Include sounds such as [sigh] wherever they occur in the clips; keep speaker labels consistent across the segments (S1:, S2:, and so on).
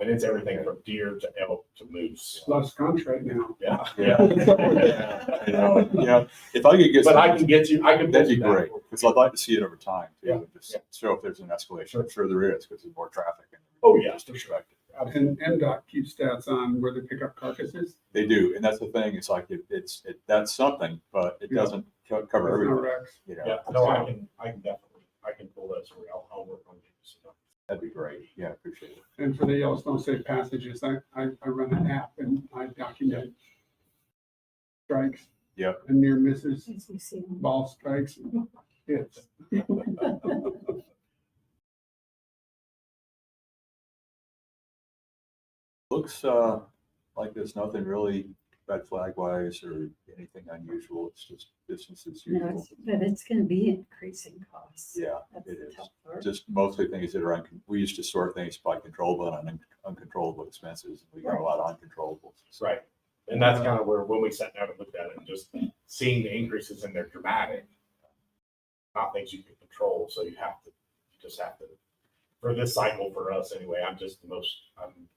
S1: And it's everything from deer to elk to moose.
S2: Lost contract now.
S1: Yeah.
S3: You know, [laughs] yeah, if I could get,
S1: But I can
S3: something,
S1: get you, I can.
S3: that'd be great, because I'd like to see it over time,
S1: Yeah,
S3: too, and just show if there's an escalation, I'm sure there is, because there's more traffic. and-
S1: Oh, yeah, for sure.
S3: Perspective.
S2: And MDOT keeps stats on where they pick up carcasses.
S3: They do, and that's the thing, it's like, it- it's, it, that's something, but it
S2: Yeah.
S3: doesn't co-
S2: There's
S3: cover
S2: no
S3: everything,
S2: wrecks.
S3: you
S1: Yeah,
S3: know,
S1: no, I can, I can definitely, I can pull that story. I'll, I'll work on it.
S3: that'd be great, yeah, I appreciate it.
S2: And for the Yellowstone Safe Passages, I, I, I run an app and I document strikes.
S3: Yeah.
S2: And near misses,
S4: Since we see them.
S2: ball strikes, and hits.
S3: Looks, uh, like there's nothing really red flag wise or anything unusual, it's just business as
S4: No,
S3: usual.
S4: it's- But it's gonna be increasing costs.
S3: Yeah,
S4: That's
S3: it
S4: the
S3: is.
S4: tough part.
S3: just mostly things that are, uncon- we used to sort things by controllable and un- uncontrollable expenses. We got a lot of uncontrollables. So,
S1: Right. And that's kind of where, when we sat down and looked at it, and just seeing the increases in their dramatic, not things you can control, so you have to, you just have to, for this cycle for us anyway, I'm just the most, I'm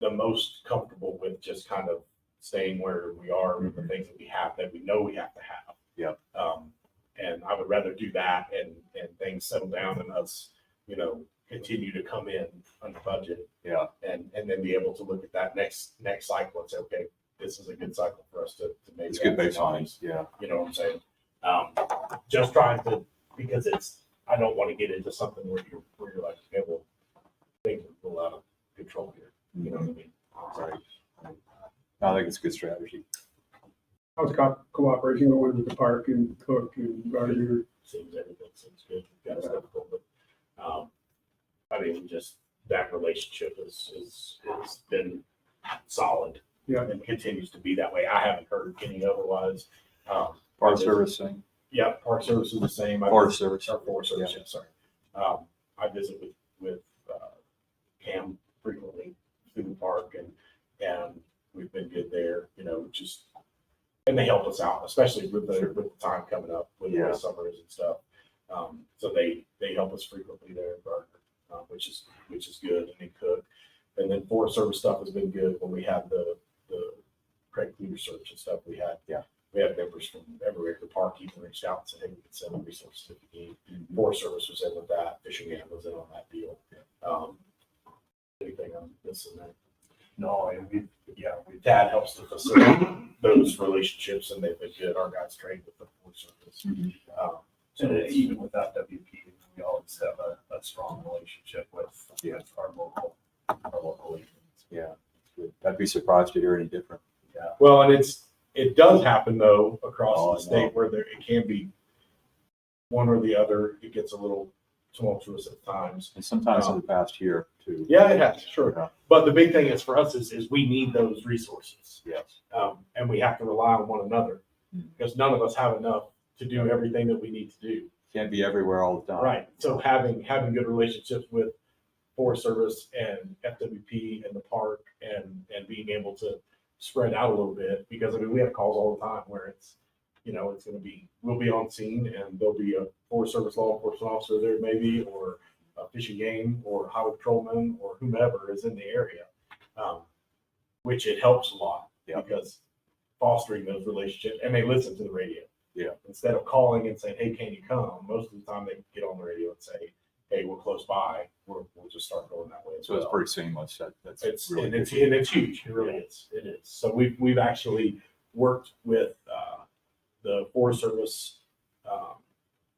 S1: the most comfortable with just kind of staying where we are with the things that we have, that we know we have to have.
S3: Yep.
S1: Um, and I would rather do that and, and things settle down and us, you know, continue to come in under budget
S3: Yeah,
S1: and and then be able to look at that next next cycle and say, okay, this is a good cycle for us to, to make.
S3: it's good
S1: that
S3: baseline.
S1: change.
S3: Yeah,
S1: You know what I'm saying? Um, just trying to because it's I don't want to get into something where you're where you're like, okay, well, things are a lot of control here. You know what I mean?
S3: right. I think it's a good strategy.
S2: I was co- cooperating with the park and Cook and Gardner.
S1: Seems everything seems good. Got stuff going, but um, I mean, just that relationship is is has been solid.
S2: Yeah.
S1: And continues to be that way. I haven't heard any otherwise. Um,
S3: Our
S1: Yes.
S3: service thing,
S1: Yeah, Park Service is the same. I
S3: Forest
S1: visit-
S3: Service.
S1: or Forest Service, yeah, sorry. Um, I visit with, with, uh, Cam frequently through the park and, and we've been good there, you know, just, and they help us out, especially with the,
S3: Sure.
S1: with the time coming up with
S3: Yeah.
S1: the summers and stuff. Um, so they, they help us frequently there in Gardner, uh, which is, which is good and they cook. And then Forest Service stuff has been good when we had the, the Craig Cleaver search and stuff we had.
S3: Yeah.
S1: We had members from everywhere at the park even reached out and said, hey, we could send them resources if you need.
S3: Mm-hmm.
S1: Forest Service was in with that, Fishing Game was in on that deal. Um, Anything on this and that? No, and we, yeah, we- that helps to facilitate those relationships and they've been good. Our guys trained with the Forest Service.
S3: Mhm.
S1: Um, So
S5: And
S1: it's-
S5: even without WP, we always have a, a strong relationship with,
S3: Yeah.
S5: with our local, our local agents.
S3: Yeah. it's good. I'd be surprised to hear any different.
S1: Well, and it's, it does happen though,
S3: Oh, I
S1: across the
S3: know.
S1: state where there, it can be one or the other. It gets a little tumultuous at times.
S3: And sometimes in the past year too.
S1: Yeah, it has, sure.
S3: Yeah.
S1: But the big thing is for us is, is we need those resources.
S3: Yes.
S1: Um, and we have to rely on one another because none of us have enough to do everything that we need to do.
S3: Can't be everywhere all the time.
S1: Right. So having, having good relationships with Forest Service and FWP and the park and, and being able to spread out a little bit, because I mean, we have calls all the time where it's, you know, it's gonna be, we'll be on scene and there'll be a Forest Service law enforcement officer there maybe, or a fishing game, or highway patrolman, or whomever is in the area. Um, Which it helps a lot,
S3: Yeah.
S1: because fostering those relationships, and they listen to the radio
S3: Yeah.
S1: instead of calling and saying, "Hey, can you come?" Most of the time, they can get on the radio and say, "Hey, we're close by. We're, we'll just start going that way." As
S3: So it's
S1: well.
S3: pretty seamless. That, that's
S1: It's
S3: really
S1: and it's
S3: good.
S1: and it's huge. It really is. It is. So we've we've actually worked with uh, the Forest Service um,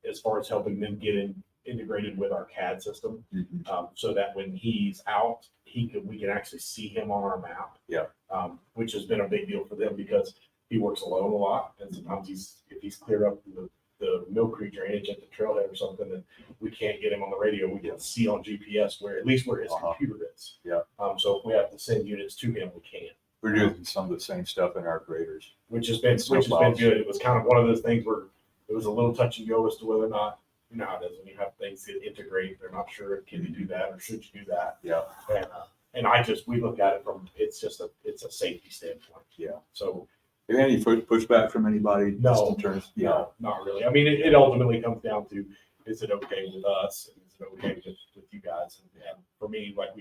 S1: as far as helping them get in, integrated with our CAD system
S3: Mhm.
S1: um, so that when he's out, he can we can actually see him on our map.
S3: Yeah.
S1: Um, which has been a big deal for them because he works alone a lot, and sometimes he's if he's cleared up the, the Mill Creek drainage at the trailhead or something, and we can't get him on the radio, we
S3: Yeah.
S1: can see on GPS where at least where his
S3: Uh-huh.
S1: computer is.
S3: Yeah.
S1: Um, so if we have to send units to him, we can
S3: We're doing some of the same stuff in our graders.
S1: which has been which has been
S3: Snowplows.
S1: good. It was kind of one of those things where it was a little touch and go as to whether or not you know how it is when you have things that integrate. They're not sure can you do that or should you do that.
S3: Yeah.
S1: And uh, and I just we look at it from it's just a it's a safety standpoint.
S3: Yeah.
S1: So
S3: Have you had any fu- pushback from anybody?
S1: No.
S3: Just in terms, yeah.
S1: no, not really. I mean, it, it ultimately comes down to is it okay with us? and Is it okay with, with you guys? And, and for me, like we